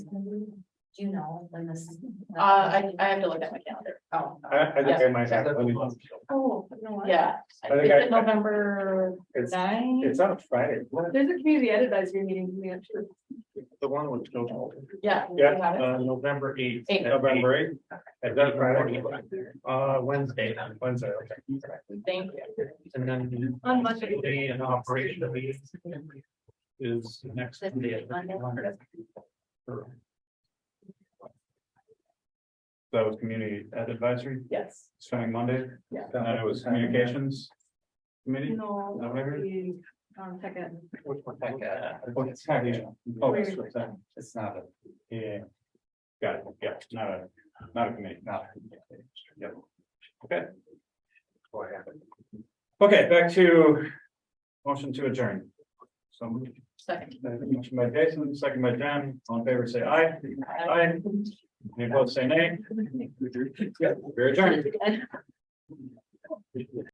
Do you know when this? Uh, I, I have to look at my calendar. Oh. I, I think I might have, let me- Oh, no. Yeah, I I think think I- it's November it's, nine. it's on Friday. What? There's a community advisory meeting coming up too. The one with snowball. Yeah. you Yeah, have it? Uh, November eighth. Eighth. November eighth? Is that Friday? Uh, Wednesday. Wednesday, okay. Thank you. And then. On Monday. Day and operation meeting Is the next. This day. Monday? That was community ed advisory, Yes. starting Monday, Yeah. and then it was communications. Committee? No. No, maybe- Um, second. Oh, it's not here. Oh, it's right there. It's not a. Yeah. Got it, yeah, not a, not a committee, not. Yep. Okay. Okay, back to motion to adjourn. So moved. Second. Motion by Jason, second by John, all in favor, say aye. Aye. Any opposed, say nay. Very adjourned.